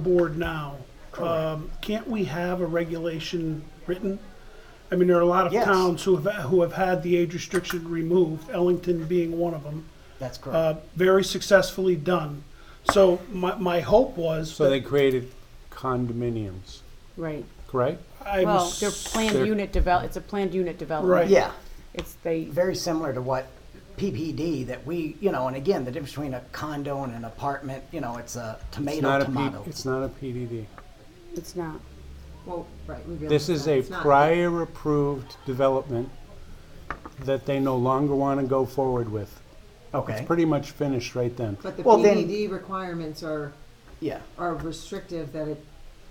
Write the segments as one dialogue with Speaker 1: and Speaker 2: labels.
Speaker 1: board now, um, can't we have a regulation written? I mean, there are a lot of
Speaker 2: Yes.
Speaker 1: towns who have, who have had the age restriction removed, Ellington being one of them,
Speaker 2: That's correct.
Speaker 1: uh, very successfully done. So my, my hope was
Speaker 3: So they
Speaker 1: that
Speaker 3: created condominiums,
Speaker 4: Right,
Speaker 3: correct?
Speaker 1: I
Speaker 4: well,
Speaker 1: was.
Speaker 4: they're planned
Speaker 3: they're-
Speaker 4: unit develop, it's a planned unit development.
Speaker 1: Right.
Speaker 2: yeah,
Speaker 4: It's they,
Speaker 2: very similar to what PPD that we, you know, and again, the difference between a condo and an apartment, you know, it's a
Speaker 3: It's
Speaker 2: tomato
Speaker 3: not a P-
Speaker 2: tomato.
Speaker 3: It's not a PDD.
Speaker 4: it's not,
Speaker 5: Well, right, we realize
Speaker 3: This is
Speaker 5: that
Speaker 3: a
Speaker 5: it's not.
Speaker 3: prior approved development that they no longer want to go forward with.
Speaker 2: okay.
Speaker 3: It's pretty much finished right then.
Speaker 5: But the
Speaker 2: Well, then-
Speaker 5: PDD requirements are,
Speaker 2: yeah.
Speaker 5: are restrictive, that it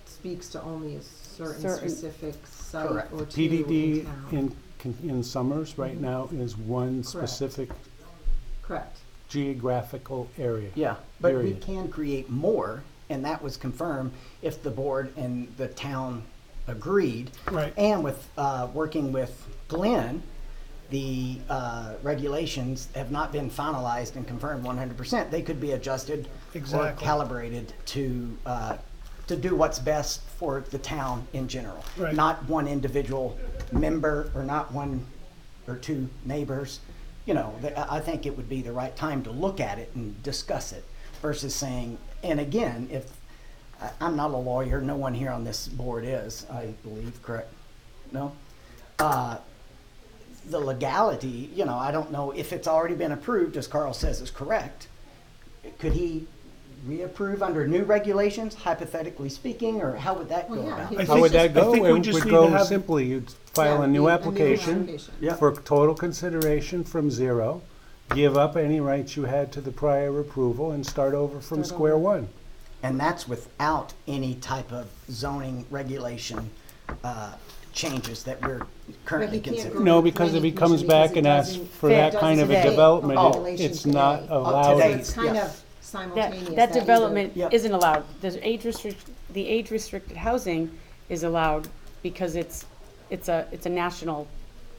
Speaker 5: speaks to only a certain
Speaker 4: Certain-
Speaker 5: specific site
Speaker 2: Correct.
Speaker 5: or two in
Speaker 3: PDD
Speaker 5: town.
Speaker 3: in, con- in Summers right now is one specific
Speaker 5: Correct.
Speaker 3: geographical area.
Speaker 2: Yeah, but
Speaker 3: Period.
Speaker 2: we can create more, and that was confirmed if the board and the town agreed.
Speaker 1: Right.
Speaker 2: And with uh, working with Glenn, the uh, regulations have not been finalized and confirmed 100%. They could be adjusted or
Speaker 1: Exactly.
Speaker 2: calibrated to uh, to do what's best for the town in general,
Speaker 1: Right.
Speaker 2: not one individual member or not one or two neighbors, you know, th- I I think it would be the right time to look at it and discuss it versus saying, and again, if, I- I'm not a lawyer, no one here on this board is, I believe, correct? No? Uh, The legality, you know, I don't know if it's already been approved, as Carl says is correct. Could he reapprove under new regulations, hypothetically speaking, or how would that go
Speaker 5: Well, yeah,
Speaker 2: about?
Speaker 5: he-
Speaker 1: I
Speaker 3: How
Speaker 1: think-
Speaker 3: would that
Speaker 1: I
Speaker 3: go?
Speaker 1: think we
Speaker 3: It would
Speaker 1: just need to
Speaker 3: go
Speaker 1: have-
Speaker 3: simply, you'd file
Speaker 5: Yeah,
Speaker 3: a new
Speaker 5: the-
Speaker 3: application
Speaker 5: application.
Speaker 2: Yeah.
Speaker 3: for total consideration from zero, give up any rights you had to the prior approval and start over from square one.
Speaker 2: And that's without any type of zoning regulation uh, changes that we're currently
Speaker 5: But he can't
Speaker 2: considering.
Speaker 5: go
Speaker 3: No,
Speaker 5: to the
Speaker 3: because if he
Speaker 5: planning
Speaker 3: comes
Speaker 5: commission
Speaker 3: back
Speaker 5: because it
Speaker 3: and asks
Speaker 5: doesn't
Speaker 3: for
Speaker 5: fit-
Speaker 3: that
Speaker 5: doesn't
Speaker 3: kind of
Speaker 5: fit
Speaker 3: a
Speaker 5: the
Speaker 3: development, it-
Speaker 5: regulations
Speaker 3: it's not
Speaker 5: today.
Speaker 3: allowed.
Speaker 5: Oh, So
Speaker 2: today.
Speaker 5: it's kind
Speaker 2: Yes.
Speaker 5: of
Speaker 4: that,
Speaker 5: simultaneous.
Speaker 4: that
Speaker 5: either-
Speaker 4: development
Speaker 2: Yep.
Speaker 4: isn't allowed. The age restrict, the age restricted housing is allowed because it's, it's a, it's a national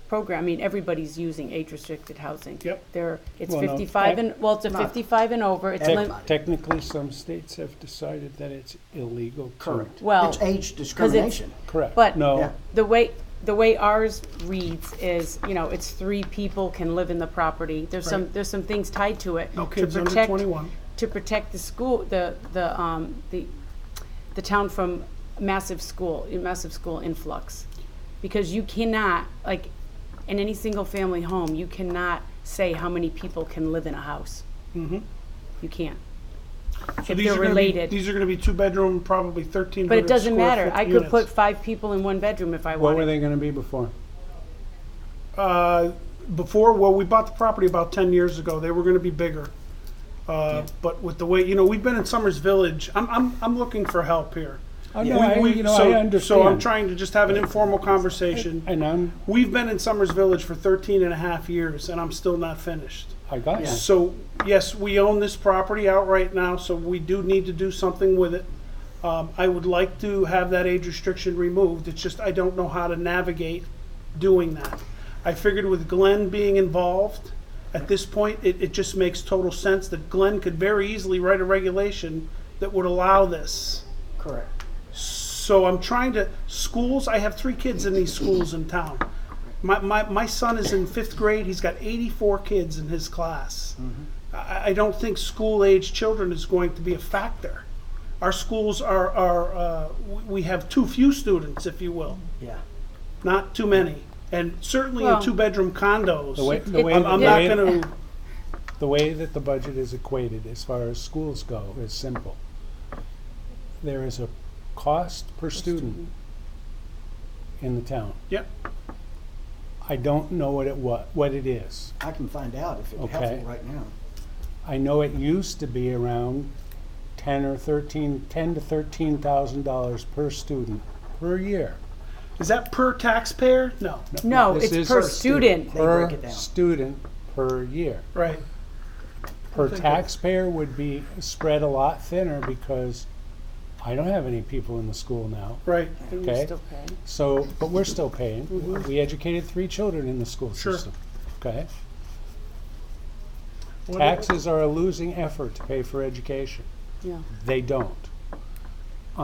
Speaker 4: program. I mean, everybody's using age restricted housing.
Speaker 1: Yep.
Speaker 4: There, it's
Speaker 3: Well, no,
Speaker 4: fifty-five and, well, it's a
Speaker 2: not-
Speaker 4: fifty-five and over, it's, lim-
Speaker 2: Everybody.
Speaker 3: Technically, some states have decided that it's illegal. to-
Speaker 2: Correct.
Speaker 4: Well,
Speaker 2: It's age discrimination.
Speaker 3: Correct.
Speaker 4: But-
Speaker 2: Yeah.
Speaker 3: No,
Speaker 4: the way, the way ours reads is, you know, it's three people can live in the property. There's some, there's some things tied to it.
Speaker 1: No
Speaker 4: to
Speaker 1: kids under
Speaker 4: protect-
Speaker 1: twenty-one.
Speaker 4: to protect the school, the, the, um, the, the town from massive school, massive school influx. Because you cannot, like, in any single family home, you cannot say how many people can live in a house. You can't.
Speaker 1: Mm-hmm. So these
Speaker 4: If they're
Speaker 1: are gonna be-
Speaker 4: related.
Speaker 1: These are gonna be two-bedroom, probably thirteen
Speaker 4: But
Speaker 1: hundred square
Speaker 4: it
Speaker 1: foot
Speaker 4: doesn't matter. I could
Speaker 1: units.
Speaker 4: put five people in one bedroom if I
Speaker 3: what were
Speaker 4: wanted.
Speaker 3: they gonna be before?
Speaker 1: Uh, before, well, we bought the property about ten years ago. They were gonna be bigger. Uh, but with the way, you know, we've been in Summers Village. I'm, I'm, I'm looking for help here.
Speaker 3: Oh,
Speaker 1: We- we- so- So I'm
Speaker 3: trying,
Speaker 1: trying to just have an informal conversation.
Speaker 3: and I'm,
Speaker 1: We've been in Summers Village for 13 and a half years and I'm still not finished.
Speaker 3: I got you.
Speaker 1: So, yes, we own this property outright now, so we do need to do something with it. Um, I would like to have that age restriction removed, it's just I don't know how to navigate doing that. I figured with Glenn being involved, at this point, it, it just makes total sense that Glenn could very easily write a regulation that would allow this.
Speaker 2: Correct.
Speaker 1: So I'm trying to, schools, I have three kids in these schools in town. My, my, my son is in fifth grade, he's got 84 kids in his class.
Speaker 3: Mm-hmm.
Speaker 1: I, I don't think school age children is going to be a factor. Our schools are, are uh, we- we have too few students, if you will,
Speaker 2: Yeah.
Speaker 1: not too many. And certainly in
Speaker 4: Well-
Speaker 1: two bedroom condos,
Speaker 3: The way, the
Speaker 4: It-
Speaker 3: way,
Speaker 1: I'm,
Speaker 3: the
Speaker 1: I'm not
Speaker 3: way,
Speaker 1: going to,
Speaker 3: the way that the budget is equated as far as schools go is simple. There is a cost per student in the town.
Speaker 1: yep.
Speaker 3: I don't know what it wa, what it is.
Speaker 2: I can find out if it's
Speaker 3: Okay.
Speaker 2: helpful right now.
Speaker 3: I know it used to be around ten or thirteen, ten to thirteen thousand dollars per student per year.
Speaker 1: Is that per taxpayer? No,
Speaker 4: No,
Speaker 3: This
Speaker 4: it's
Speaker 3: is
Speaker 4: per
Speaker 3: per
Speaker 4: student.
Speaker 2: They break it
Speaker 3: Per
Speaker 2: down.
Speaker 3: student per year.
Speaker 1: right.
Speaker 3: per taxpayer would be spread a lot thinner because I don't have any people in the school now.
Speaker 1: Right.
Speaker 3: Okay, so, but we're still paying. We educated three children in the school
Speaker 1: Sure.
Speaker 3: system. Okay,
Speaker 1: What-
Speaker 3: taxes are a losing effort to pay for education.
Speaker 4: Yeah.
Speaker 3: They don't.